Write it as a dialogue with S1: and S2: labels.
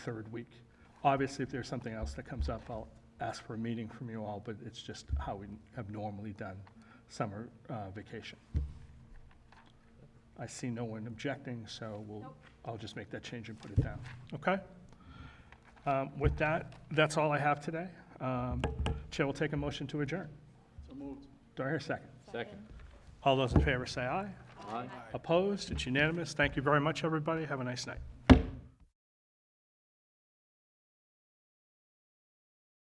S1: third week. Obviously, if there's something else that comes up, I'll ask for a meeting from you all, but it's just how we have normally done summer uh, vacation. I see no one objecting, so we'll,
S2: Nope.
S1: I'll just make that change and put it down, okay? Um, With that, that's all I have today. Um, Chair will take a motion to adjourn.
S3: So moved.
S1: Do I hear a second?
S3: Second.
S1: All those in favor say aye.
S3: Aye.
S1: Opposed? It's unanimous. Thank you very much, everybody. Have a nice night.